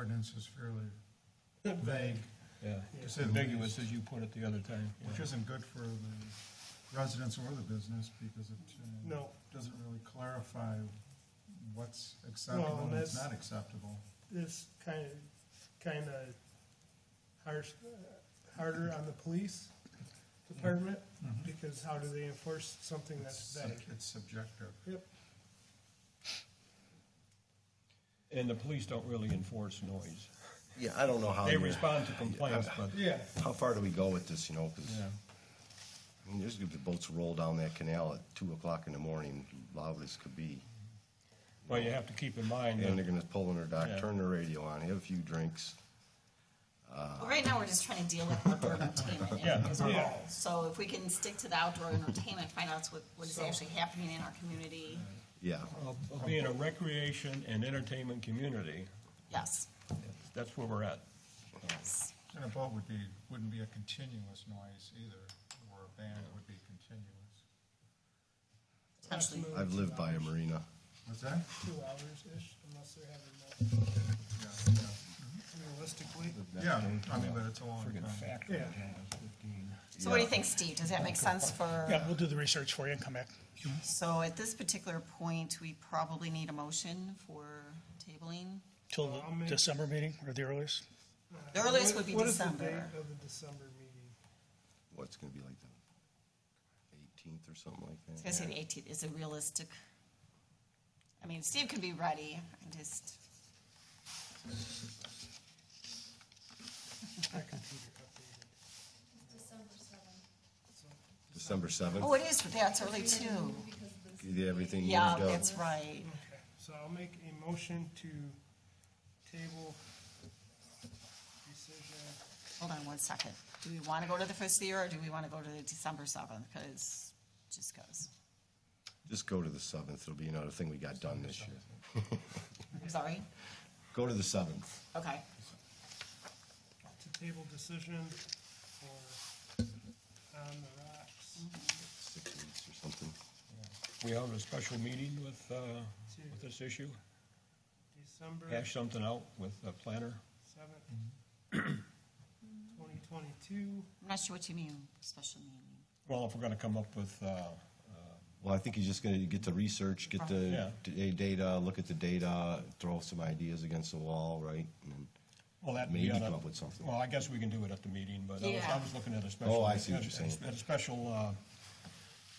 ordinance is fairly vague, Yeah, to say the ambiguous least, as you put it the other time. which isn't good for the residents or the business because it uh, No, doesn't really clarify what's acceptable and what's that's- not acceptable. this kind of, kind of harsh, harder on the police department, because how do they enforce something It's sub- Mm-hmm. that's vague? It's subjective. Yep, And the police don't really enforce noise. Yeah, I don't know how, They you're- respond to complaints, but, yeah, how far do we go with this, you know, because, yeah. I mean, there's gonna be boats roll down that canal at two o'clock in the morning, loud as could be. Well, you have to keep in mind And they're that, gonna pull in their dock, Yeah. turn the radio on, have a few drinks. Well, right now, we're just trying to deal with outdoor entertainment Yeah, as a yeah. whole. So if we can stick to the outdoor entertainment, find out what, what is So- actually happening in our community, Yeah, of of being a recreation and entertainment community, yes, that's where we're at. yes. And a boat would be, wouldn't be a continuous noise either, or a band would be continuous. Potentially, I've lived by a marina. What's that? two hours-ish, unless they're having more, Yeah, yeah. realistically. Yeah, I mean, but it's a long Friggin' time. factory. Yeah. So what do you think, Steve? Does that make sense for? Yeah, we'll do the research for you and come back. So at this particular point, we probably need a motion for tabling. Till Well, I'll make- the December meeting or the earliest? The earliest would be What is the December. date of the December meeting? What's gonna be like the eighteenth or something like I was that? gonna say the eighteenth is a realistic. I mean, Steve could be ready, I just, My computer updated. December seventh, December oh, seventh, it is, that's early too. because the get everything moved Oh. Yeah, up. that's right. Okay, so I'll make a motion to table decision. Hold on one second. Do we wanna go to the first of the year or do we wanna go to the December seventh? Cause it just goes. Just go to the seventh, it'll be another thing we got done this year. I'm sorry? Go to the seventh. Okay. to table decision for on the rocks six weeks or something. We held a special meeting with, uh, with this issue, December hash something out with the planner. seventh, twenty twenty-two. I'm not sure what you mean, special meeting. Well, if we're gonna come up with, uh, Well, I think he's just gonna get the research, get the Yeah. da- data, look at the data, throw some ideas against the wall, right? And then- Well, that Maybe be on come a- up with something. Well, I guess we can do it at the meeting, but I was, I Yeah. was looking at a special. Oh, I see what at- you're saying. At a special, uh,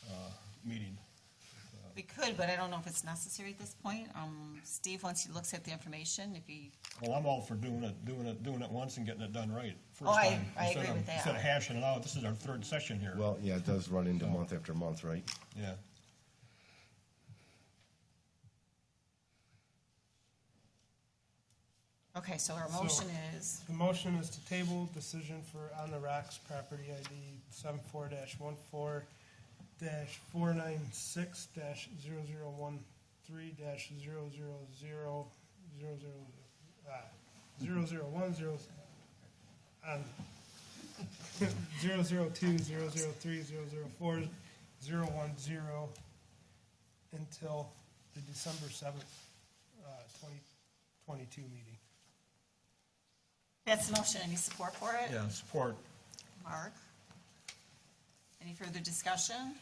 uh, meeting. We could, but I don't know if it's necessary at this point. Um, Steve, once he looks at the information, if he, Well, I'm all for doing it, doing it, doing it once and getting it done right. first Oh, I- time, I instead agree of- with that. Instead of hashing it out, this is our third session here. Well, yeah, it does run into month after month, right? Yeah. okay, so our So- motion is, The motion is to table decision for on the rocks property ID seven four dash one four dash four nine six dash zero zero one three dash zero zero zero zero zero uh zero zero one zero on zero zero two zero zero three zero zero four zero one zero until the December seventh uh twenty twenty-two meeting. that's the motion. Any support for it? Yeah, support. Mark? Any further discussion?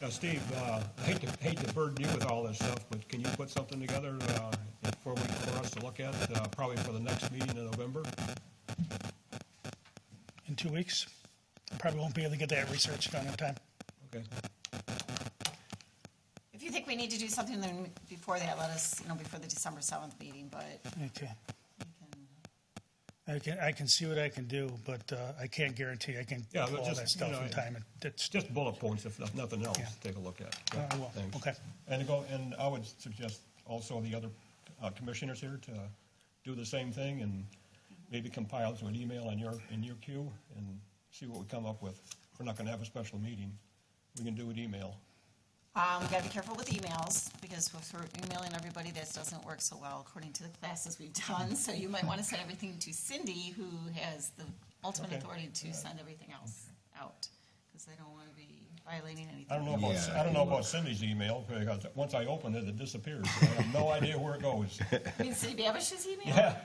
Now, Steve, uh, I hate to, hate to burden you with all this stuff, but can you put something together, uh, for, we- for us to look at, uh, probably for the next meeting in November? In two weeks? Probably won't be able to get that research done in time. Okay. If you think we need to do something then before that, let us, you know, before the December seventh meeting, but Okay. we can, I can, I can see what I can do, but uh, I can't guarantee I can Yeah, pull but all just, that you stuff know, in time. and That's, Just bullet points, if no- nothing else, Yeah. take a look at. I will, Thanks. okay. And go, and I would suggest also the other uh, commissioners here to do the same thing and maybe compile to an email in your, in your queue and see what we come up with. If We're not gonna have a special meeting. We can do it email. um, we gotta be careful with emails, because if we're emailing everybody, this doesn't work so well according to the classes we've done, so you might wanna send everything to Cindy, who has the ultimate Okay. authority to send everything else out, because I don't wanna be violating anything. I don't know about, Yeah, I don't know you about Cindy's email, because once I open it, it disappears. I have no idea where it goes. You mean Cindy Babish's email? Yeah,